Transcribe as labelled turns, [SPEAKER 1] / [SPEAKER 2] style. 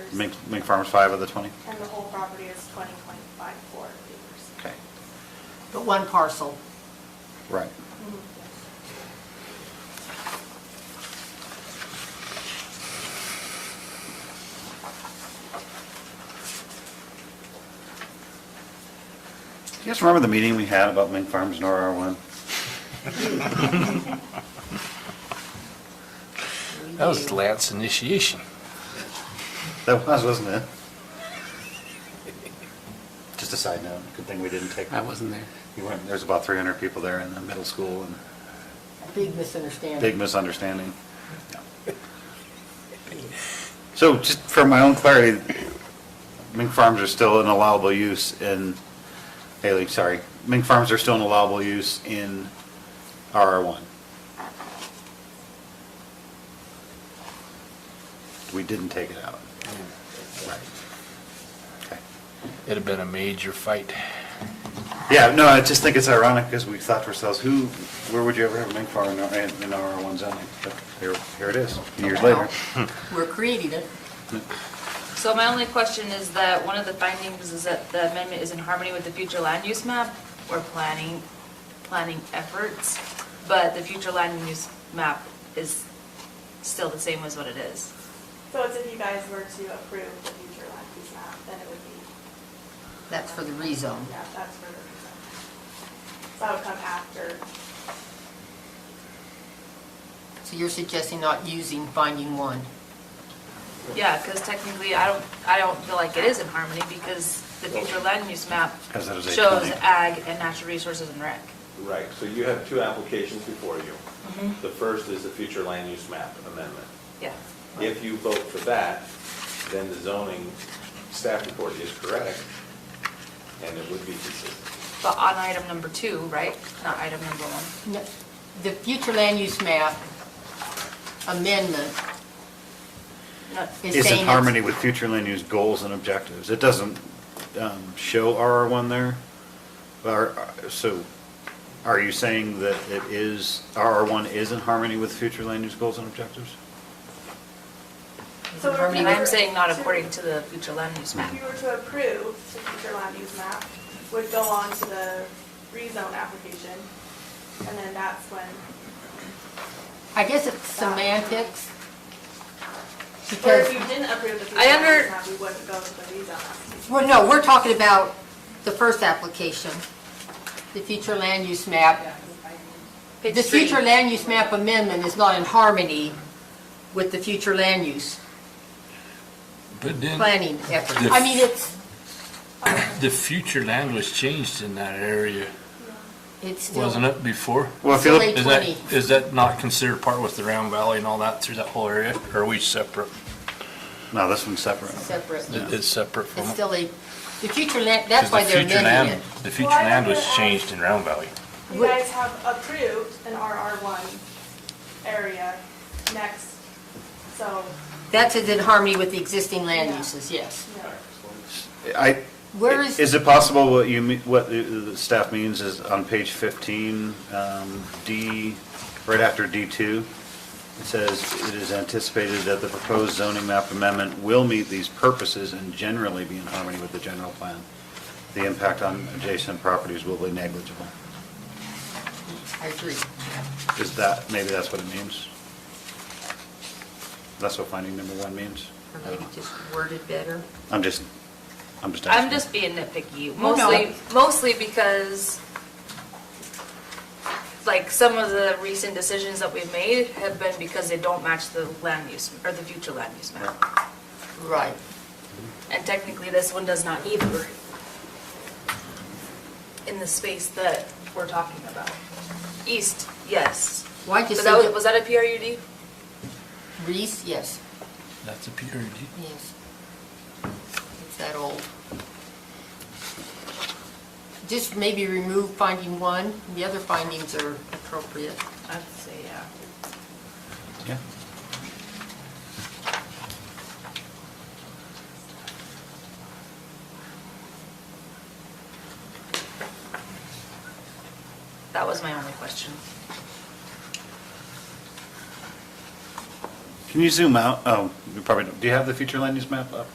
[SPEAKER 1] Mink, Mink Farms five of the 20?
[SPEAKER 2] And the whole property is 20, 25, four acres.
[SPEAKER 1] Okay,
[SPEAKER 3] But one parcel.
[SPEAKER 1] right. Do you guys remember the meeting we had about Mink Farms and RR1?
[SPEAKER 4] That was Lance initiation.
[SPEAKER 1] That was, wasn't it? Just a side note, good thing we didn't take.
[SPEAKER 5] I wasn't there.
[SPEAKER 1] You weren't, there's about 300 people there in the middle school and
[SPEAKER 3] Big misunderstanding.
[SPEAKER 1] Big misunderstanding. So just for my own clarity, mink farms are still an allowable use in, Haley, sorry, mink farms are still an allowable use in RR1. We didn't take it out. Right. Okay.
[SPEAKER 4] It'd have been a major fight.
[SPEAKER 1] Yeah, no, I just think it's ironic because we thought to ourselves, who, where would you ever have a mink farm in our- in in RR1 zoning? But here, here it is, years
[SPEAKER 3] Oh,
[SPEAKER 1] later.
[SPEAKER 3] We're creating it.
[SPEAKER 6] So my only question is that one of the findings is that the amendment is in harmony with the future land use map or planning, planning efforts, but the future land use map is still the same as what it is.
[SPEAKER 2] So it's if you guys were to approve the future land use map, then it would be,
[SPEAKER 3] That's for the rezone.
[SPEAKER 2] yeah, that's for the rezone. So that would come after,
[SPEAKER 3] So you're suggesting not using finding one?
[SPEAKER 6] Yeah, because technically, I don't, I don't feel like it is in harmony because the future land use map
[SPEAKER 1] Because it is a
[SPEAKER 6] shows
[SPEAKER 1] planning.
[SPEAKER 6] ag and natural resources and rec.
[SPEAKER 7] Right, so you have two applications before you. The first is the future land use map amendment.
[SPEAKER 6] Yeah.
[SPEAKER 7] If you vote for that, then the zoning staff report is correct, and it would be consistent.
[SPEAKER 6] But on item number two, right? Not item number one.
[SPEAKER 3] No. The future land use map amendment
[SPEAKER 6] Not-
[SPEAKER 3] is
[SPEAKER 1] is
[SPEAKER 3] saying...
[SPEAKER 1] in
[SPEAKER 3] it's-
[SPEAKER 1] harmony with future land use goals and objectives. It doesn't um, show RR1 there, but, are- so are you saying that it is, RR1 is in harmony with future land use goals and objectives?
[SPEAKER 2] so if you
[SPEAKER 6] And
[SPEAKER 2] were.
[SPEAKER 6] I'm saying not according to the future land use map.
[SPEAKER 2] If you were to approve the future land use map, would go on to the rezone application, and then that's when,
[SPEAKER 3] I guess it's semantics.
[SPEAKER 2] or
[SPEAKER 3] Because,
[SPEAKER 2] if you didn't approve the future
[SPEAKER 6] I under-
[SPEAKER 2] land use map, we wouldn't go to the rezone application.
[SPEAKER 3] well, no, we're talking about the first application, the future land use map.
[SPEAKER 6] Page
[SPEAKER 3] The
[SPEAKER 6] three.
[SPEAKER 3] future land use map amendment is not in harmony with the future land use
[SPEAKER 4] But then,
[SPEAKER 3] planning effort. I mean, it's,
[SPEAKER 4] the future land was changed in that area,
[SPEAKER 3] it's still...
[SPEAKER 4] wasn't it, before?
[SPEAKER 1] Well, if you
[SPEAKER 3] So
[SPEAKER 1] look,
[SPEAKER 3] they-
[SPEAKER 4] Is that,
[SPEAKER 3] 20.
[SPEAKER 4] is that not considered part with the Round Valley and all that through that whole area? Or are we separate?
[SPEAKER 1] no, this one's separate.
[SPEAKER 3] Separate.
[SPEAKER 4] It- It's separate from.
[SPEAKER 3] It's
[SPEAKER 4] it?
[SPEAKER 3] still a, the future land,
[SPEAKER 4] 'Cause
[SPEAKER 3] that's
[SPEAKER 4] the
[SPEAKER 3] why they're
[SPEAKER 4] future
[SPEAKER 3] amending
[SPEAKER 4] land,
[SPEAKER 3] it.
[SPEAKER 4] The future
[SPEAKER 2] Well, I
[SPEAKER 4] land
[SPEAKER 2] wonder
[SPEAKER 4] was
[SPEAKER 2] if-
[SPEAKER 4] changed in Round Valley.
[SPEAKER 2] You
[SPEAKER 3] Would-
[SPEAKER 2] guys have approved an RR1 area next, so,
[SPEAKER 3] That's in harmony with the existing land
[SPEAKER 2] Yeah.
[SPEAKER 3] uses, yes.
[SPEAKER 2] you know,
[SPEAKER 1] I,
[SPEAKER 3] Where is,
[SPEAKER 1] is it possible what you, me- what the- the staff means is on page 15, um, D, right after D2? It says, "It is anticipated that the proposed zoning map amendment will meet these purposes and generally be in harmony with the general plan. The impact on adjacent properties will be negligible."
[SPEAKER 3] I agree.
[SPEAKER 1] Is that, maybe that's what it means? That's what finding number one means?
[SPEAKER 3] Or maybe just worded better.
[SPEAKER 1] I'm just, I'm just asking.
[SPEAKER 6] I'm just being nitpicky,
[SPEAKER 3] Oh, no.
[SPEAKER 6] mostly, mostly because, like, some of the recent decisions that we've made have been because they don't match the land use, or the future land use map.
[SPEAKER 3] Right.
[SPEAKER 6] And technically, this one does not either in the space that we're talking about. East, yes.
[SPEAKER 3] Why just
[SPEAKER 6] Was
[SPEAKER 3] say
[SPEAKER 6] that, was
[SPEAKER 3] that-
[SPEAKER 6] that a PRUD?
[SPEAKER 3] Reese, yes,
[SPEAKER 4] That's a PRD.
[SPEAKER 3] yes. It's that old. Just maybe remove finding one, the other findings are appropriate.
[SPEAKER 6] I'd say, yeah.
[SPEAKER 1] Yeah.
[SPEAKER 6] That was my only question.
[SPEAKER 1] Can you zoom out? Oh, you probably, don't- do you have the future land use map up?